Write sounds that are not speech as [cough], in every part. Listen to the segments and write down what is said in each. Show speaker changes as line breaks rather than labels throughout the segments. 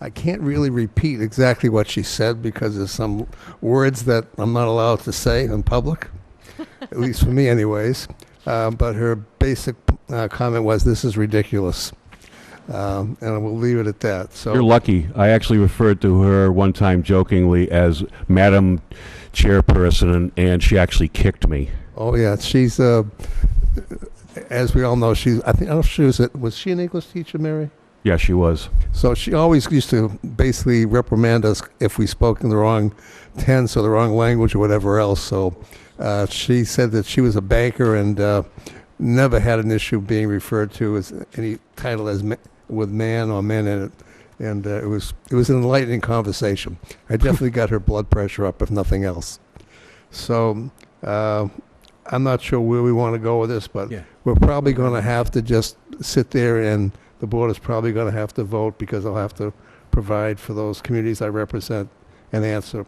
I can't really repeat exactly what she said because there's some words that I'm not allowed to say in public, at least for me, anyways. Uh, but her basic uh, comment was, "This is ridiculous," um, and we'll leave it at that. So
You're lucky. I actually referred to her one time jokingly as Madam Chairperson, and- and she actually kicked me.
Oh yeah, she's uh, as we all know, she's. I think I don't know if she was. A, was she an English teacher, Mary?
Yeah, she was.
So she always used to basically reprimand us if we spoke in the wrong tense or the wrong language or whatever else. So uh, she said that she was a banker and uh, never had an issue being referred to as any title as ma- with man or men in it. And uh, it was it was an enlightening conversation. I definitely got her blood pressure up, if nothing else. So uh, I'm not sure where we want to go with this, but
Yeah.
we're probably going to have to just sit there and the board is probably going to have to vote because I'll have to provide for those communities I represent an answer.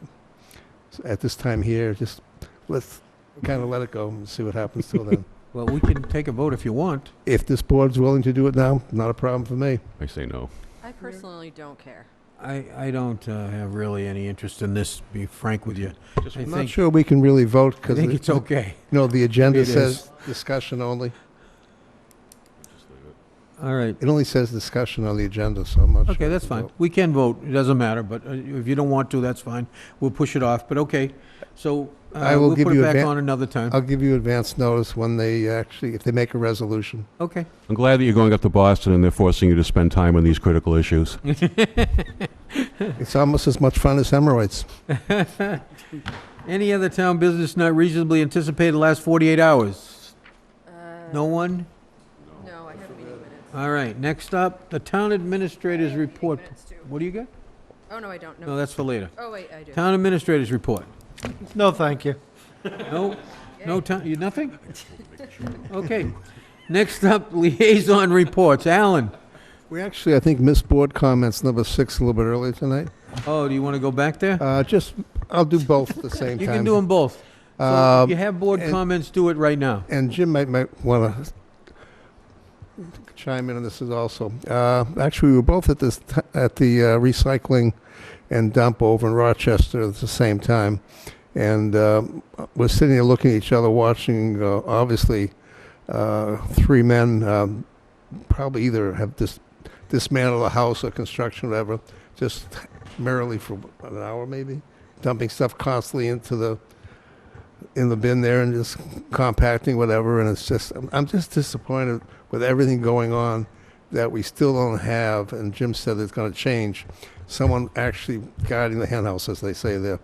So At this time here, just let's kind of let it go and see what happens till then.
Well, we can take a vote if you want.
If this board's willing to do it now, not a problem for me.
I say no.
I personally don't care.
I, I don't uh, have really any interest in this, to be frank with you. I
I'm not
think,
sure we can really vote
I
because,
think it's
you
okay.
know, the agenda
It is.
says discussion only.
All right.
It only says discussion on the agenda, so I'm not sure.
Okay,
we
that's
can
fine.
vote.
We can vote, it doesn't matter, but uh, if you don't want to, that's fine. We'll push it off, but okay. So uh,
I will
we'll
give
put it
you
back
advan-
on another time.
I'll give you advance notice when they actually, if they make a resolution.
Okay. [laughs]
I'm glad that you're going up to Boston and they're forcing you to spend time on these critical issues.
It's almost as much fun as hemorrhoids.
Any other town business not reasonably anticipated last 48 hours?
Uh,
No one?
No, I have meeting minutes.
All right, next up, the town administrator's
Meeting
report.
minutes too.
What do you got?
Oh, no, I don't,
No,
no.
that's for later.
Oh, wait, I do.
Town administrator's report.
No, thank you.
No, no
Yay.
town, you, nothing? Okay. Next up, [laughs] liaison reports. Alan,
We actually, I think, missed board comments number six a little bit earlier tonight.
oh, do you want to go back there?
Uh, Just, I'll do both at the same time.
You can do them both. So if
Um,
you have board
and-
comments, do it right now.
And Jim might, might want to chime in on this is also. Uh, Actually, we were both at this, t- at the uh, recycling and dump over in Rochester at the same time. And um, we're sitting there looking at each other, watching, uh, obviously, uh, three men um, probably either have dis- dismantled a house or construction, whatever, just merrily for an hour maybe, dumping stuff constantly into the, in the bin there and just compacting whatever and it's just I'm, I'm just disappointed with everything going on that we still don't have and jim said it's going to change someone actually guiding the henhouse as they say there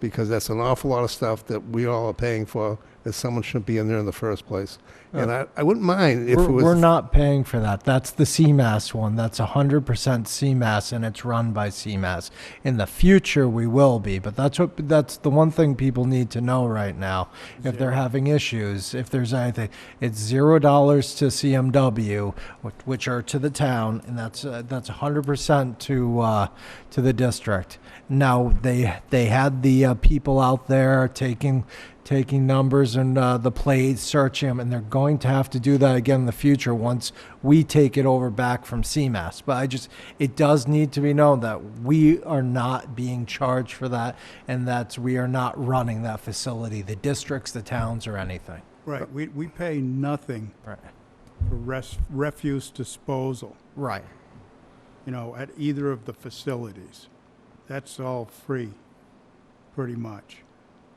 because that's an awful lot of stuff that we all are paying for that someone shouldn't be in there in the first place and I, I wouldn't mind if
We're,
it was
we're not paying for that. That's the CMAS one. That's 100% CMAS and it's run by CMAS. In the future, we will be, but that's what that's the one thing people need to know right now. If they're having issues, if there's anything, it's zero dollars to CMW, which, which are to the town, and that's uh, that's 100% to uh, to the district. Now they they had the uh, people out there taking taking numbers and uh, the plates, searching them, and they're going to have to do that again in the future once we take it over back from CMAS. But I just, it does need to be known that we are not being charged for that, and that we are not running that facility, the districts, the towns, or anything.
Right, we, we pay nothing
Right.
for res, refuse disposal,
Right.
you know, at either of the facilities. That's all free, pretty much.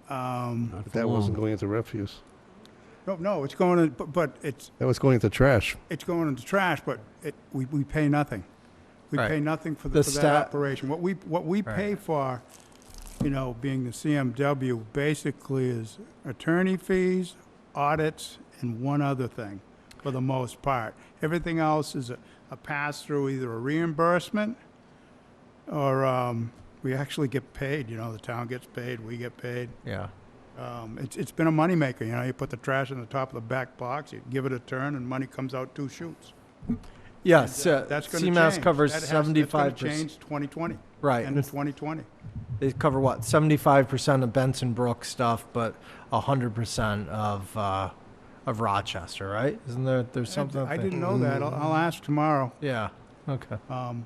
Um,
that wasn't going into refuse
no, no, it's going in, but, but it's,
that was going into trash
it's going into trash, but it, we, we pay nothing. We
Right.
pay nothing for,
The
the- for that
sta-
operation. What we, what we
Right.
pay for, you know, being the CMW, basically is attorney fees, audits, and one other thing, for the most part. Everything else is a, a pass-through, either a reimbursement, or, um, we actually get paid, you know, the town gets paid, we get paid.
Yeah.
Um, it's, it's been a moneymaker, you know, you put the trash in the top of the back box, you give it a turn, and money comes out two shoots.
Yes.
uh, That's going to change.
CMAS covers
That has- That's
75%.
going to change 2020,
Right.
end of 2020.
they cover what 75% of Benson Brook stuff, but 100% of uh, of Rochester, right? Isn't there there's something?
I didn't know that. I'll- I'll ask tomorrow.
Yeah. Okay.
Um,